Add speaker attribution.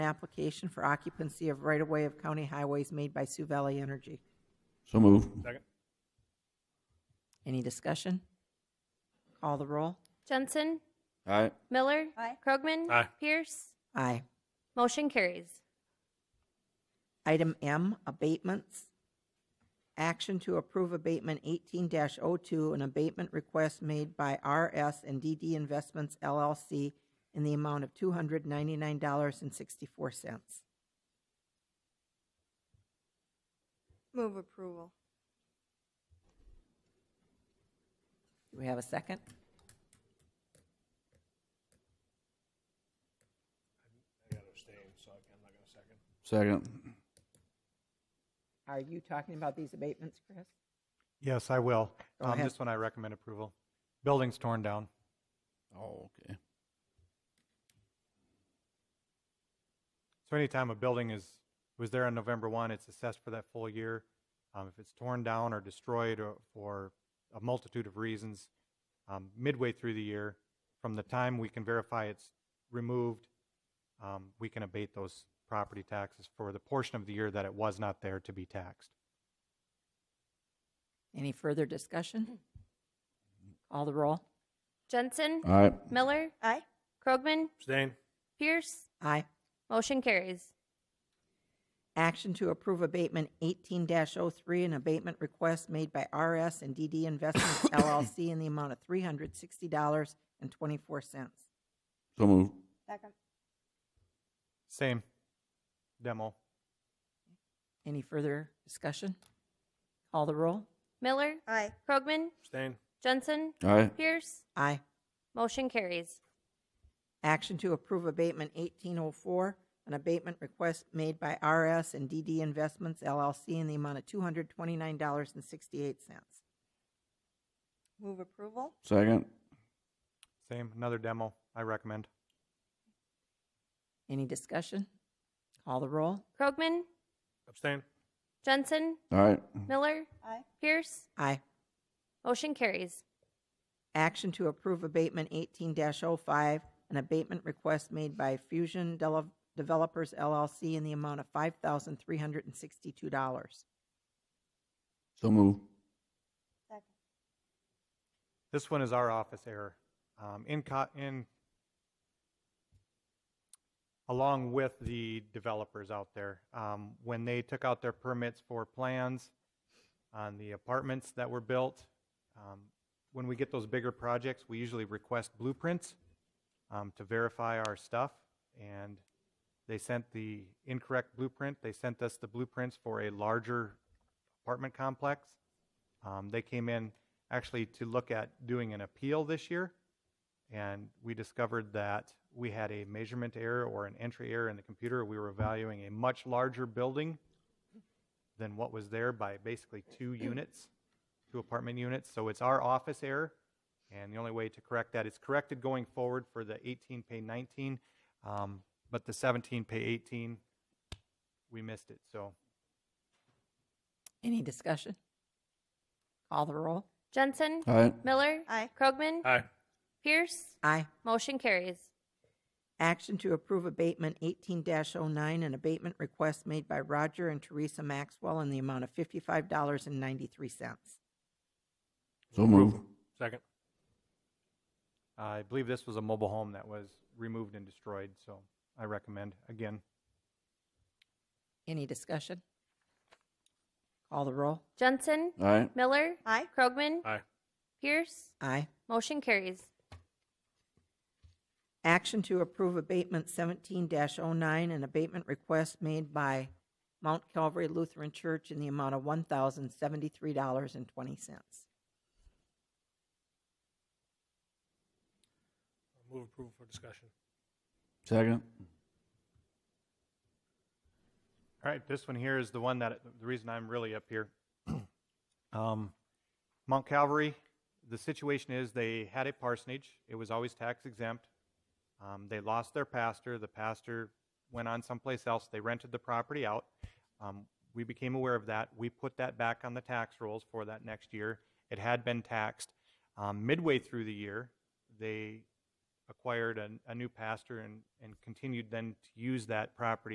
Speaker 1: application for occupancy of right-of-way of county highways made by Sioux Valley Energy.
Speaker 2: So move.
Speaker 3: Second.
Speaker 1: Any discussion? Call the roll.
Speaker 4: Jensen,
Speaker 2: Aye.
Speaker 4: Miller, Krogman,
Speaker 3: Aye.
Speaker 4: Pierce.
Speaker 1: Aye.
Speaker 4: Motion carries.
Speaker 1: Item M, abatements. Action to approve abatement eighteen 2 an abatement request made by RS and DD Investments LLC in the amount of two hundred ninety-nine dollars and sixty-four cents.
Speaker 5: Move approval.
Speaker 1: Do we have a second?
Speaker 2: Second.
Speaker 1: Are you talking about these abatements, Chris?
Speaker 3: Yes, I will.
Speaker 1: Go
Speaker 3: Um,
Speaker 1: ahead.
Speaker 3: This one I recommend approval. Building's torn down.
Speaker 2: Oh, okay.
Speaker 3: So anytime a building is, was there on November 1, it's assessed for that full year. Um, If it's torn down or destroyed or- for a multitude of reasons, um, midway through the year, from the time we can verify it's removed, um, we can abate those property taxes for the portion of the year that it was not there to be taxed.
Speaker 1: Any further discussion? Call the roll.
Speaker 4: Jensen,
Speaker 2: Aye.
Speaker 4: Miller,
Speaker 5: Aye.
Speaker 4: Krogman,
Speaker 3: Abstain.
Speaker 4: Pierce.
Speaker 1: Aye.
Speaker 4: Motion carries.
Speaker 1: Action to approve abatement eighteen 3 an abatement request made by RS and DD Investments LLC in the amount of three hundred sixty dollars and twenty-four cents.
Speaker 2: So move.
Speaker 5: Second.
Speaker 3: Same. Demo.
Speaker 1: Any further discussion? Call the roll.
Speaker 4: Miller,
Speaker 5: Aye.
Speaker 4: Krogman,
Speaker 3: Abstain.
Speaker 4: Jensen,
Speaker 2: Aye.
Speaker 4: Pierce.
Speaker 1: Aye.
Speaker 4: Motion carries.
Speaker 1: Action to approve abatement eighteen oh four, an abatement request made by RS and DD Investments LLC in the amount of two hundred twenty-nine dollars and sixty-eight cents.
Speaker 5: Move approval.
Speaker 2: Second.
Speaker 3: Same. Another demo. I recommend.
Speaker 1: Any discussion? Call the roll.
Speaker 4: Krogman,
Speaker 3: Abstain.
Speaker 4: Jensen,
Speaker 2: Aye.
Speaker 4: Miller,
Speaker 5: Aye.
Speaker 4: Pierce.
Speaker 1: Aye.
Speaker 4: Motion carries.
Speaker 1: Action to approve abatement eighteen 5 an abatement request made by Fusion Dele- Developers LLC in the amount of five thousand three hundred and sixty-two dollars.
Speaker 2: So move.
Speaker 5: Second.
Speaker 3: This one is our office error. Um, in co- in along with the developers out there, um, when they took out their permits for plans on the apartments that were built, um, when we get those bigger projects, we usually request blueprints um, to verify our stuff. And they sent the incorrect blueprint. They sent us the blueprints for a larger apartment complex. Um, they came in actually to look at doing an appeal this year, and we discovered that we had a measurement error or an entry error in the computer. We were valuing a much larger building than what was there by basically two units, two apartment units. So it's our office error, and the only way to correct that, it's corrected going forward for the 18 pay 19, um, but the 17 pay 18, we missed it. So
Speaker 1: Any discussion? Call the roll.
Speaker 4: Jensen,
Speaker 2: Aye.
Speaker 4: Miller,
Speaker 5: Aye.
Speaker 4: Krogman,
Speaker 3: Aye.
Speaker 4: Pierce.
Speaker 1: Aye.
Speaker 4: Motion carries.
Speaker 1: Action to approve abatement eighteen 9 an abatement request made by Roger and Teresa Maxwell in the amount of fifty-five dollars and ninety-three cents.
Speaker 2: So move.
Speaker 3: Second. I believe this was a mobile home that was removed and destroyed, so I recommend, again,
Speaker 1: Any discussion? Call the roll.
Speaker 4: Jensen,
Speaker 2: Aye.
Speaker 4: Miller,
Speaker 5: Aye.
Speaker 4: Krogman,
Speaker 3: Aye.
Speaker 4: Pierce.
Speaker 1: Aye.
Speaker 4: Motion carries.
Speaker 1: Action to approve abatement seventeen 9 an abatement request made by Mount Calvary Lutheran Church in the amount of one thousand seventy-three dollars and twenty cents.
Speaker 6: Move approval for discussion.
Speaker 2: Second.
Speaker 3: All right, this one here is the one that, the reason I'm really up here. Um, Mount Calvary, the situation is they had a parsonage. It was always tax exempt. Um, they lost their pastor. The pastor went on someplace else. They rented the property out. Um, we became aware of that. We put that back on the tax rolls for that next year. It had been taxed. Um, midway through the year, they acquired a, a new pastor and, and continued then to use that property